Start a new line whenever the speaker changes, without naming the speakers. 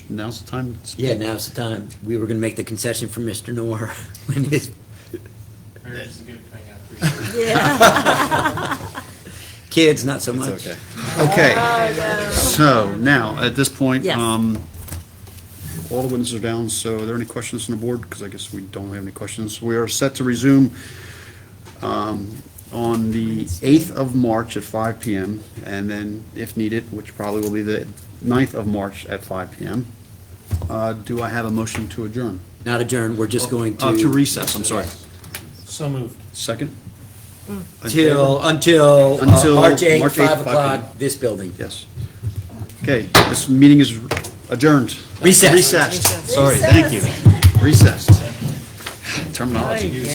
now's the time. to speak.
Yeah, now's the time. We were gonna make the concession for Mr. Noor when his,
Marriage is a good thing, I appreciate it.
kids, not so much.
It's okay. Okay. So now, at this point,
Yes.
um, all the winds are down, so are there any questions on the board? Because I guess we don't have any questions. We are set to resume um, on the 8th of March at 5 PM, and then if needed, which probably will be the 9th of March at 5 PM. Uh, Do I have a motion to adjourn?
Not adjourned, we're just going
Uh, To
to,
recess, I'm sorry.
So moved.
Second?
Mm. till, until, uh,
Until
March eighth,
March 8th,
five o'clock,
five.
this building.
Yes. Okay, this meeting is adjourned.
Recess.
Recessed. Sorry, thank you. Recessed. Terminology.